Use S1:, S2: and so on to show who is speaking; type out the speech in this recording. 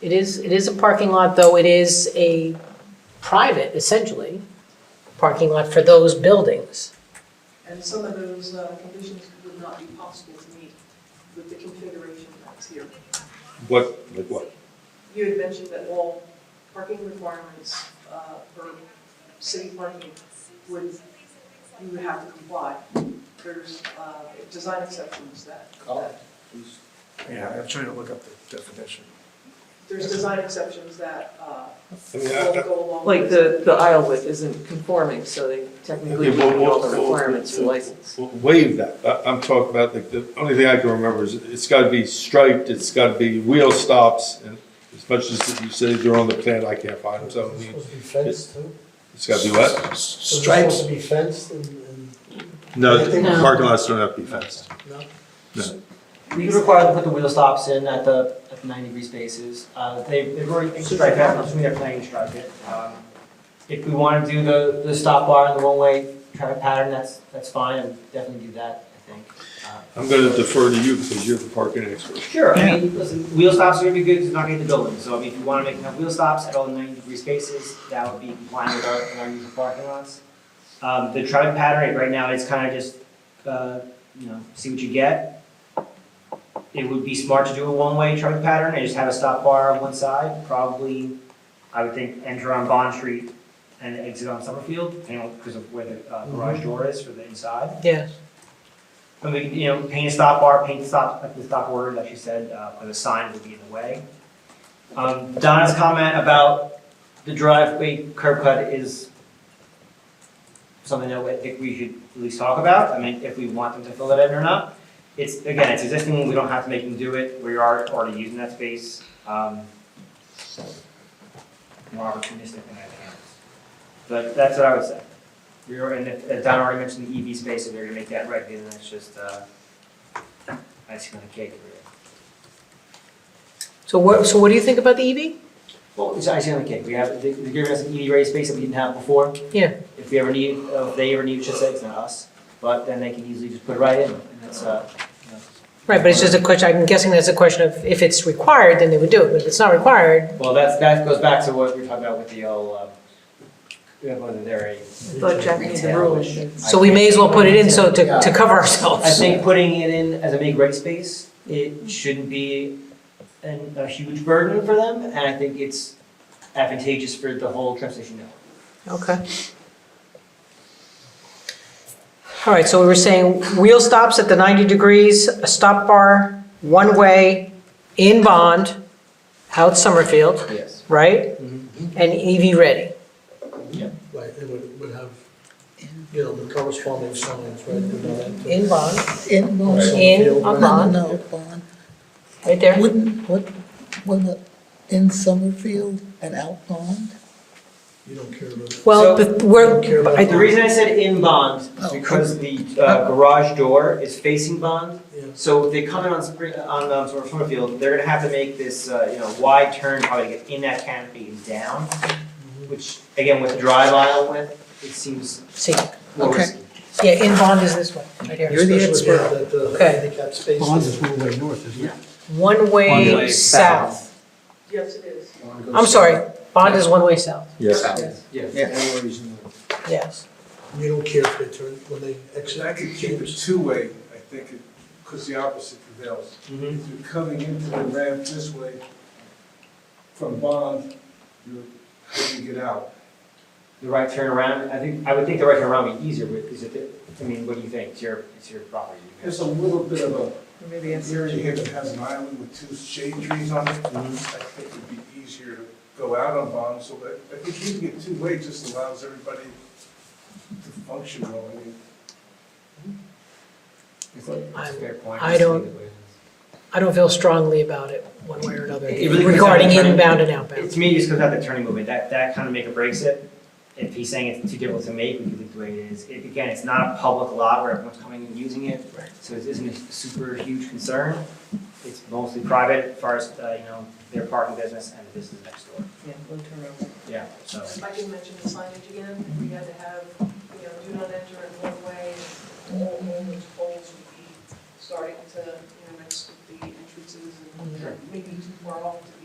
S1: It is, it is a parking lot, though it is a private, essentially, parking lot for those buildings.
S2: And some of those uh, conditions would not be possible to meet with the configuration that's here.
S3: What, like what?
S2: You had mentioned that all parking requirements uh, for city parking would, you would have to comply. There's uh, design exceptions that,
S3: Oh.
S2: that-
S4: Yeah, I'm trying to look up the definition.
S2: there's design exceptions that uh,
S3: I mean, I-
S2: will
S3: I-
S2: go along with.
S5: Like the, the aisle width isn't conforming, so they technically
S3: Okay, well,
S5: meet all
S3: well,
S5: the
S3: well,
S5: requirements for
S3: well,
S5: license.
S3: well, Waive that, I, I'm talking about, like, the only thing I can remember is, it's gotta be striped, it's gotta be wheel stops, and as much as you say they're on the plan, I can't find them, so, I mean,
S6: Supposed to be fenced too?
S3: it's gotta be what?
S6: So it's
S4: Stripes,
S6: Supposed to be fenced and, and,
S3: No,
S6: No.
S3: parking lots don't have to be fenced.
S6: no?
S7: We could require them to put the wheel stops in at the, at the ninety degree spaces. Uh, they, they've already striped that, I'm assuming they're planning to stripe it. Um, If we wanna do the, the stop bar and the one-way traffic pattern, that's, that's fine, I'd definitely do that, I think. Uh,
S3: I'm gonna defer to you, because you're the parking expert.
S7: Sure, I mean, listen, wheel stops are gonna be good, because it's not gonna hit the building, so I mean, if you wanna make enough wheel stops at all ninety degree spaces, that would be compliant with our, with our usual parking lots. Um, the traffic pattern right now is kinda just, uh, you know, see what you get. It would be smart to do a one-way traffic pattern, and just have a stop bar on one side, probably, I would think, enter on Bond Street and exit on Summerfield, you know, because of where the uh, garage door is for the inside.
S1: Yeah.
S7: And we, you know, paint a stop bar, paint stop, like the stop word that she said, uh, or the sign would be in the way. Um, Donna's comment about the driveway curb cut is something that I think we should at least talk about, I mean, if we want them to fill that in or not. It's, again, it's existing, we don't have to make them do it, we are already using that space, um, more opportunistic than anything else. But that's what I would say. We were, and if- uh, Don already mentioned the EV space, if they're gonna make that right, then that's just, uh, icing on the cake over there.
S1: So what, so what do you think about the E EV?
S7: Well, it's icing on the cake, we have, they- they're giving us an EV ready space that we didn't have before.
S1: Yeah.
S7: If we ever need, uh, if they ever need, should say it's not us, but then they can easily just put it right in, and it's, uh, you know.
S1: Right, but it's just a question, I'm guessing that's a question of if it's required, then they would do it, but if it's not required,
S7: Well, that's, that goes back to what we were talking about with the old, um, you know, whether they're a.
S5: But Jack needs a rule.
S1: so we may as well put it in so to, to cover ourselves.
S7: I think putting it in as a make ready space, it shouldn't be an, a huge burden for them, and I think it's advantageous for the whole transportation network.
S1: Okay. All right, so we were saying wheel stops at the 90 degrees, a stop bar, one-way, in Bond, out Summerfield,
S7: Yes.
S1: right?
S7: Mhm.
S1: And EV ready.
S6: Right, it would, would have, you know, the corresponding signs, right? with that.
S1: In Bond,
S8: In, no,
S6: Right.
S1: in, on
S8: no,
S1: Bond,
S8: no, Bond.
S1: right there.
S8: Wouldn't, what, wouldn't it, in Summerfield and out Bond?
S6: You don't care about.
S1: Well,
S7: So-
S1: but we're,
S6: Don't care about
S1: I-
S7: The reason I said in Bond is
S8: Oh.
S7: because the uh, garage door is facing Bond,
S6: Yeah.
S7: so if they come in on Spring, on um, Summer- Summerfield, they're gonna have to make this, uh, you know, wide turn, probably to get in that canopy and down, which, again, with the drive aisle width, it seems
S1: see,
S7: more
S8: Okay.
S7: risky.
S1: yeah, in Bond is this one, right here.
S6: Especially now that the
S1: Okay.
S6: handicap space.
S9: Bonds is one way north, isn't it?
S1: One-way
S7: One-way
S1: south.
S2: Yes, it is.
S1: I'm sorry, Bond is one-way south,
S2: Yes.
S7: Yeah.
S9: Yeah.
S7: no reason.
S1: yes.
S6: You don't care if they turn, when they exit.
S10: I could keep it two-way, I think, because the opposite prevails.
S7: Mhm.
S10: If you're coming into the ramp this way from Bond, you're, when you get out.
S7: The right turn around, I think, I would think the right turn around would be easier, but is it, the- I mean, what do you think? It's your, it's your property. you
S10: There's a little bit of a
S5: Maybe
S10: an
S5: it's.
S10: area here that has an island with two shade trees on it.
S1: Mm-hmm.
S10: I think it'd be easier to go out on Bond, so that, I think keeping it two-way just allows everybody to function well. I mean,
S7: guys. It's a- it's a fair point.
S1: I don't- I don't feel strongly about it, one way or another,
S7: It really comes down to
S1: regarding
S7: turning-
S1: inbound and
S7: It-
S1: outbound.
S7: To me, it just comes out the turning movement, that, that kind of make or breaks it. If he's saying it's too difficult to make, we can leave it the way it is. It- Again, it's not a public lot where everyone's coming and using it, so it isn't a super huge concern. It's mostly private as far as, uh, you know, their parking business and the business next door.
S5: Yeah, we'll turn around.
S7: Yeah, so.
S2: If I can mention the signage again, we had to have, you know, do not enter in one way, all, all those poles would be starting to, you know, next to the entrances and maybe too far off to